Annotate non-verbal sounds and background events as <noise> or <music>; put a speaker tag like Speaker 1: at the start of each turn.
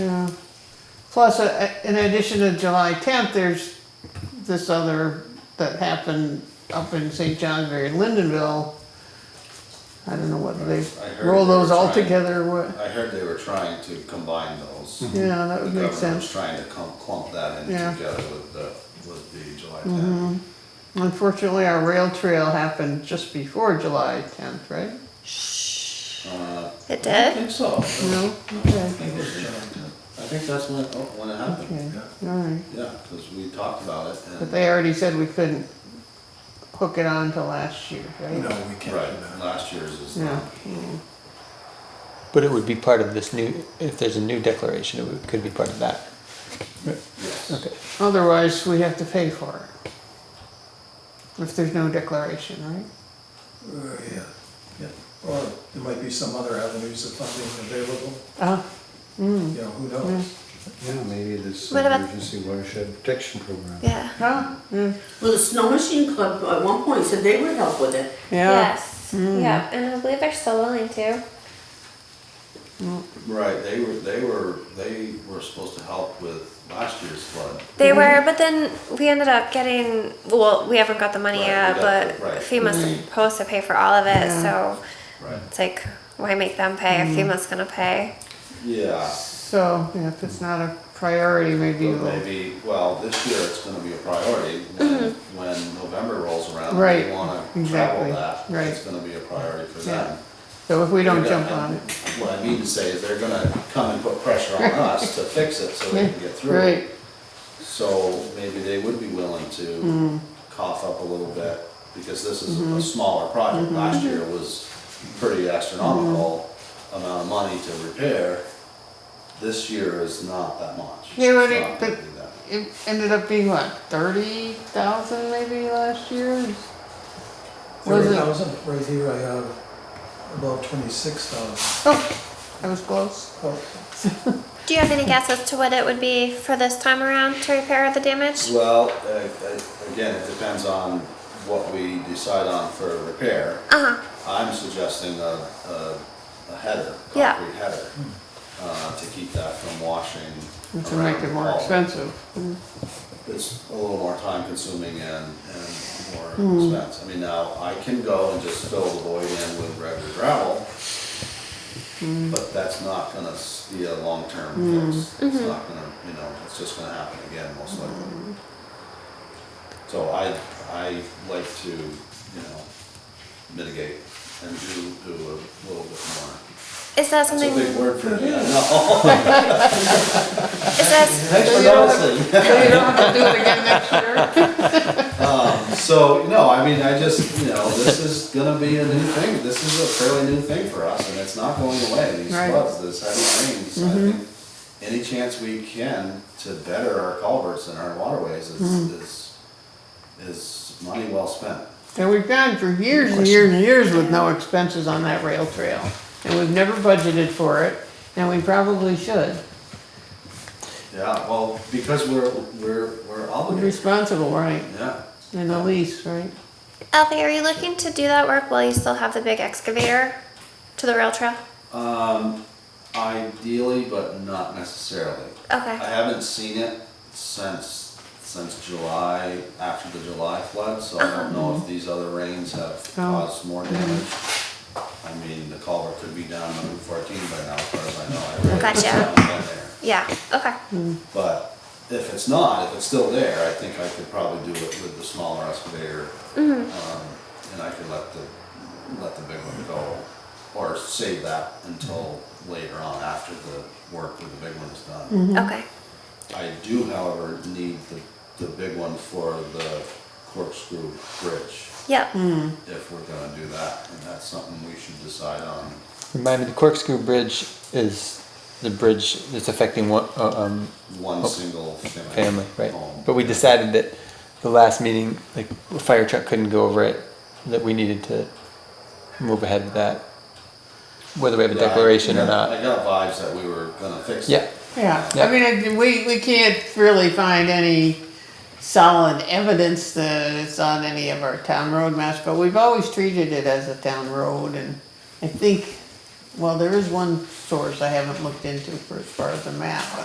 Speaker 1: Plus, uh, in addition to July tenth, there's this other that happened up in St. John's, very Lindenville. I don't know whether they
Speaker 2: I heard
Speaker 1: roll
Speaker 2: they were
Speaker 1: those all
Speaker 2: trying-
Speaker 1: together or what.
Speaker 2: I heard they were trying to combine those.
Speaker 1: Yeah, that
Speaker 2: The
Speaker 1: would make
Speaker 2: government was
Speaker 1: Mm-hmm. sense.
Speaker 2: Trying to clump, clump that in
Speaker 1: Yeah. Mm-hmm.
Speaker 2: together with the, with the July tenth.
Speaker 1: Unfortunately, our rail trail happened just before July tenth, right?
Speaker 2: Uh,
Speaker 3: It
Speaker 2: I
Speaker 3: did?
Speaker 2: think so. I
Speaker 1: No? Okay,
Speaker 2: think it was July 10th. I think that's when, oh, when it happened,
Speaker 1: okay, all right.
Speaker 2: yeah, because we talked about it
Speaker 1: But
Speaker 2: and,
Speaker 1: they already said we couldn't hook it on to last year,
Speaker 4: No,
Speaker 1: right?
Speaker 4: we can't do
Speaker 2: right,
Speaker 4: that.
Speaker 2: last year's is.
Speaker 1: Yeah. Hmm.
Speaker 5: But it would be part of this new, if there's a new declaration, it would- could be part of that.
Speaker 2: Yes.
Speaker 5: Okay.
Speaker 1: Otherwise, we have to pay for it. If there's no declaration, right?
Speaker 4: Uh, Yeah, yeah. Or there might be some other avenues of funding available,
Speaker 1: Uh,
Speaker 4: you know, who knows?
Speaker 6: Yeah, maybe this
Speaker 3: What about-
Speaker 6: emergency watershed protection program.
Speaker 3: Yeah.
Speaker 1: huh? Yeah.
Speaker 7: Well, the Snow Machine Club at one point said they would help with it.
Speaker 1: Yeah. Mm.
Speaker 3: Yes. Yeah, and I believe they're still willing to.
Speaker 2: Right, they were, they were, they were supposed to help with last year's flood.
Speaker 1: Mm-hmm.
Speaker 3: They were, but then we ended up getting, well, we haven't got the money
Speaker 2: Right, we
Speaker 3: yet,
Speaker 2: got
Speaker 3: but
Speaker 2: the- right.
Speaker 3: FEMA's supposed to pay for all of it,
Speaker 1: Mm-hmm. Yeah. Mm-hmm.
Speaker 3: so
Speaker 2: Right.
Speaker 3: it's like, why make them pay if FEMA's gonna pay?
Speaker 2: Yeah.
Speaker 1: So, yeah, if it's not a priority, maybe
Speaker 2: But
Speaker 1: we'll,
Speaker 2: maybe, well, this year it's gonna be a priority, when, when November rolls around,
Speaker 1: Mm-hmm. Right,
Speaker 2: they wanna
Speaker 1: exactly,
Speaker 2: travel that,
Speaker 1: right.
Speaker 2: it's gonna be a priority for
Speaker 1: Yeah.
Speaker 2: them.
Speaker 1: so if we don't
Speaker 2: They're
Speaker 1: jump on
Speaker 2: gonna-
Speaker 1: it.
Speaker 2: What I mean to say is they're gonna come and put pressure on us to fix it so they can get through
Speaker 1: Right,
Speaker 2: it. So maybe they would be willing
Speaker 1: Mm-hmm.
Speaker 2: to cough up a little bit, because this is a smaller
Speaker 1: Mm-hmm.
Speaker 2: project, last year was pretty astronomical
Speaker 1: Mm-hmm.
Speaker 2: amount of money to repair. This year is not that much.
Speaker 1: Yeah, but
Speaker 2: It's
Speaker 1: it-
Speaker 2: not gonna
Speaker 1: but-
Speaker 2: be that.
Speaker 1: it ended up being what, thirty thousand maybe last year? Was
Speaker 4: Thirty
Speaker 1: it,
Speaker 4: thousand, right here I have about twenty-six thousand. Oh,
Speaker 1: oh, that was close.
Speaker 3: Do you have any guess as to what it would be for this time around to repair the damage?
Speaker 2: Well, uh, uh, again, it depends on what we decide on for repair.
Speaker 3: Uh-huh,
Speaker 2: I'm suggesting a, a a header,
Speaker 3: Yeah.
Speaker 2: concrete header, uh, to keep that from washing around.
Speaker 1: To make it more
Speaker 2: all.
Speaker 1: expensive.
Speaker 2: It's a little more time consuming and, and more expense. I mean, now, I can go and just fill the void in with regular gravel, but that's not gonna s- be a long-term fix. It's not gonna, you know, it's just gonna happen again, most likely. So I, I like to, you know, mitigate and do, do a little bit more.
Speaker 3: is that
Speaker 2: That's a
Speaker 3: something,
Speaker 2: big
Speaker 3: is
Speaker 2: word for me, I know.
Speaker 3: that,
Speaker 2: Thanks for
Speaker 1: you don't have-
Speaker 2: noticing.
Speaker 1: <laughs> So you don't have to do it again next year?
Speaker 2: So, no, I mean, I just, you know, this is gonna be a new thing, this is a fairly new thing for us, and it's not going away, these
Speaker 1: Right.
Speaker 2: floods, this heavy rains, I think any chance we can to better our culverts and our waterways is, is, is money well spent.
Speaker 1: And we've gone for years and years and years with no expenses on that rail trail. And we've never budgeted for it, and we probably should.
Speaker 2: Yeah, well, because we're, we're, we're
Speaker 1: We're
Speaker 2: obligated,
Speaker 1: Responsible, right,
Speaker 2: yeah.
Speaker 1: in the lease, right?
Speaker 3: Alfie, are you looking to do that work while you still have the big excavator to the rail trail?
Speaker 2: Um, ideally, but not necessarily.
Speaker 3: Okay.
Speaker 2: I haven't seen it since, since July, after the July flood, so I don't know if these other rains have caused more damage. I mean, the culvert could be down on Route fourteen by now, as far as I know. I really
Speaker 3: Gotcha.
Speaker 2: haven't been there.
Speaker 3: Yeah, okay.
Speaker 2: But if it's not, if it's still there, I think I could probably do it with the smaller excavator. um, And I could let the, let the big one go, or save that until later on, after the work with the big one is done.
Speaker 1: Mm-hmm.
Speaker 3: Okay.
Speaker 2: I do, however, need the, the big one for the corkscrew bridge,
Speaker 3: Yep.
Speaker 2: if we're gonna do that, and that's something we should decide on.
Speaker 5: Remind me, the corkscrew bridge is the bridge that's affecting one, uh, um,
Speaker 2: One single family.
Speaker 5: family, right?
Speaker 2: home.
Speaker 5: But we decided that the last meeting, like, a fire truck couldn't go over it, that we needed to move ahead with that. Whether we have a
Speaker 2: Yeah, I-
Speaker 5: declaration or
Speaker 2: yeah,
Speaker 5: not.
Speaker 2: I got vibes that we were gonna fix it.
Speaker 5: uh, Yeah,
Speaker 1: Yeah,
Speaker 5: Yeah.
Speaker 1: I mean, it- we, we can't really find any solid evidence that it's on any of our town road maps, but we've always treated it as a town road and I think, well, there is one source I haven't looked into for as far as the map,